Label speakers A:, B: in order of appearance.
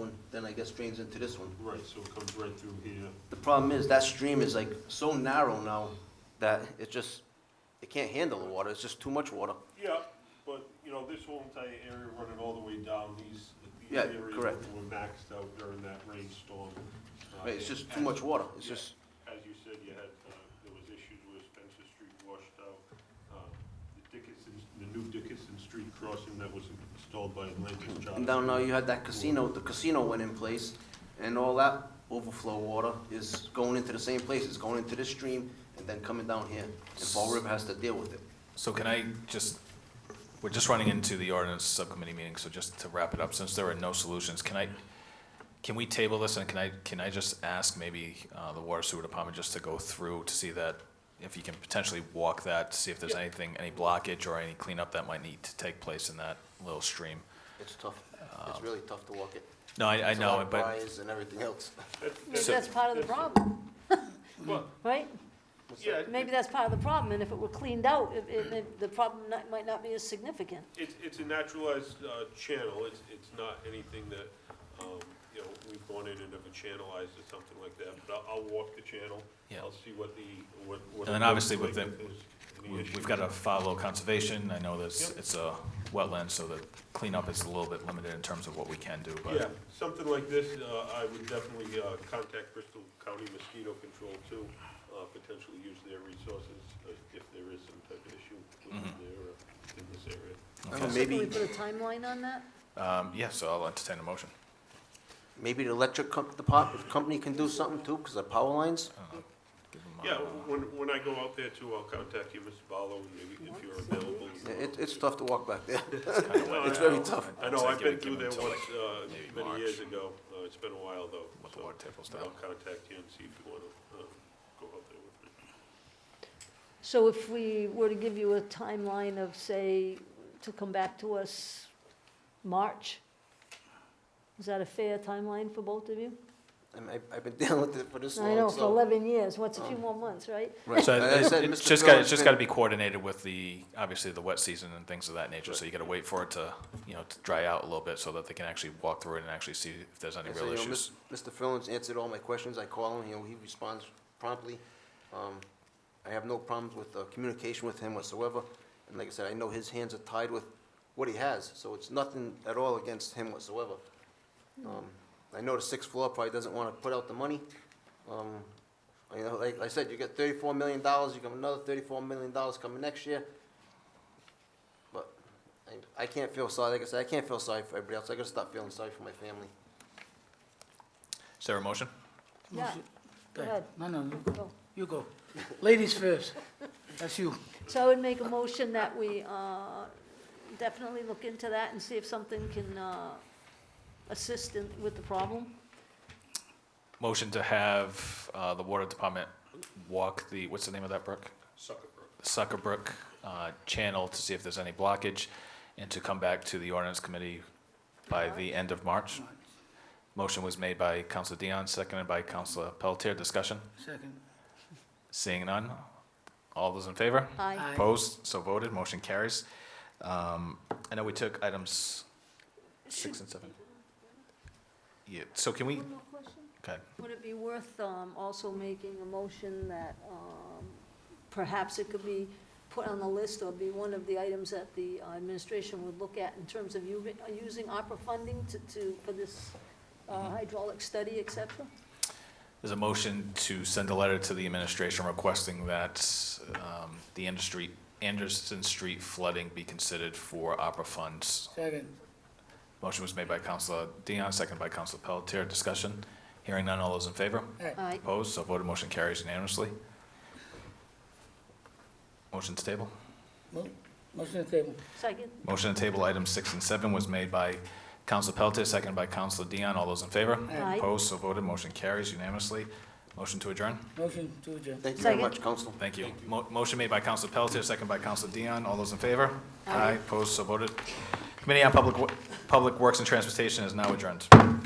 A: one, then I guess drains into this one.
B: Right, so it comes right through here.
A: The problem is, that stream is like so narrow now that it just, it can't handle the water, it's just too much water.
B: Yeah, but, you know, this whole entire area running all the way down, these, these
A: Yeah,
B: areas were
A: correct.
B: maxed out during that rainstorm. Uh,
A: Right, It's just too much water, it's just,
B: As you said, you had, uh, there was issues where Spencer Street washed out. Uh, The Dickinson, the new Dickinson Street crossing that was installed by Atlantic Charter.
A: and down now you had that casino, the casino went in place, and all that overflow water is going into the same place, it's going into this stream, and then coming down here, and Fall River has to deal with it.
C: So can I just, we're just running into the ordinance subcommittee meeting, so just to wrap it up, since there are no solutions, can I, can we table this and can I, can I just ask maybe uh, the water sewer department just to go through to see that, if you can potentially walk that, to see if there's anything, any blockage or any cleanup that might need to take place in that little stream?
A: It's tough, it's really tough to walk it.
C: No, I, I
A: It's a lot
C: know,
A: of
C: but,
A: briars and everything else.
B: That-
D: Maybe
C: So-
D: that's part of the problem,
B: Well,
D: right?
B: yeah,
D: Maybe that's part of the problem, and if it were cleaned out, it- it- it- the problem not- might not be as significant.
B: It's, it's a naturalized uh, channel, it's, it's not anything that, um, you know, we've gone in and ever channelized or something like that, but I'll, I'll walk the channel.
C: Yeah.
B: I'll see what the, what. what
C: And then
B: it
C: obviously
B: looks
C: with
B: like,
C: the-
B: if there's any
C: we-
B: issues.
C: we've got to follow conservation, I know that's,
B: Yep.
C: it's a wetland, so the cleanup is a little bit limited in terms of what we can do,
B: Yeah,
C: but,
B: something like this, uh, I would definitely uh, contact Bristol County Mosquito Control too, uh, potentially use their resources uh, if there is some type of issue within
C: Mm-hmm.
B: there, uh, in this area.
A: I don't know,
D: Can we
A: maybe,
D: put a timeline on that?
C: um, yeah, so I'll entertain a motion.
A: maybe the electric com- depart- company can do something too, because the power lines,
C: Give 'em,
B: Yeah,
C: uh,
B: when, when I go out there too, I'll contact you, Mr. Barlow, and maybe if you're available.
A: it, it's tough to walk back there.
B: No,
A: It's
B: I
A: very
B: know.
A: tough.
B: I know,
C: So
B: I've
C: give it-
B: been through
C: give
B: there
C: it
B: once,
C: till, like,
B: uh,
C: maybe
B: many
C: March.
B: yeels ago, uh, it's been a while though,
C: With the
B: so
C: water table stuff.
B: I'll contact you and see if you wanna, uh, go out there with me.
D: So if we were to give you a timeline of, say, to come back to us March, is that a fair timeline for both of you?
A: And I, I've been dealing with it for this long, Oh.
D: I know, for
A: so.
D: 11 years, what's a few more months, right?
A: Right,
C: So
A: like I
C: it's,
A: said,
C: it's
A: Mr.
C: just
A: Bill
C: got,
A: has
C: it's just
A: been-
C: got to be coordinated with the, obviously, the wet season and things of that nature. So you got to wait for it to, you know, to dry out a little bit so that they can actually walk through it and actually see if there's any
A: I said,
C: real
A: you know,
C: issues.
A: Mis- Mr. Fillon's answered all my questions, I call him, you know, he responds promptly. Um, I have no problems with, uh, communication with him whatsoever, and like I said, I know his hands are tied with what he has, so it's nothing at all against him whatsoever. Um, I know the sixth floor probably doesn't wanna put out the money, um, you know, like I said, you get thirty-four million dollars, you got another thirty-four million dollars coming next year. But I, I can't feel sorry, like I said, I can't feel sorry for everybody else, I gotta stop feeling sorry for my family.
C: Is there a motion?
D: Yeah, Go ahead.
E: No, no, you-
D: Go.
E: you go. Ladies first. That's you.
D: So I would make a motion that we uh, definitely look into that and see if something can uh, assist in- with the problem.
C: Motion to have, uh, the water department walk the, what's the name of that brook?
B: Sucker Brook.
C: Sucker Brook, uh, channel to see if there's any blockage and to come back to the ordinance committee by the end of March. Motion was made by Counselor Dion, seconded by Counselor Pelletier. Discussion?
E: Second.
C: Seeing none. All those in favor?
D: Aye.
E: Aye.
C: Opposed, so voted, motion carries. Um, I know we took items
D: Should-
C: six and seven. Yeah, so can we,
D: One more question?
C: okay,
D: Would it be worth um, also making a motion that um, perhaps it could be put on the list or be one of the items that the uh, administration would look at in terms of u- using ARPA funding to- to, for this uh, hydraulic study, et cetera?
C: there's a motion to send a letter to the administration requesting that um, the industry, Anderson Street flooding be considered for opera funds.
E: Second.
C: Motion was made by Counselor Dion, seconded by Counselor Pelletier. Discussion? Hearing none, all those in favor?
D: Aye.
C: Opposed, so voted, motion carries unanimously. Motion to table?
E: Mo- Motion to table.
D: Second?
C: Motion to table items six and seven was made by Counsel Pelletier, seconded by Counsel Dion. All those in favor?
D: Aye.
C: Opposed, so voted. Motion carries unanimously. Motion to adjourn?
E: Motion to adjourn.
A: Thank you very
D: Second.
A: much, Council.
C: Thank you. Mo- Motion made by Counsel Pelletier, seconded by Counsel Dion. All those in favor? Aye. Opposed, so voted. Committee on Public, Wo- Public Works and Transportation is now adjourned.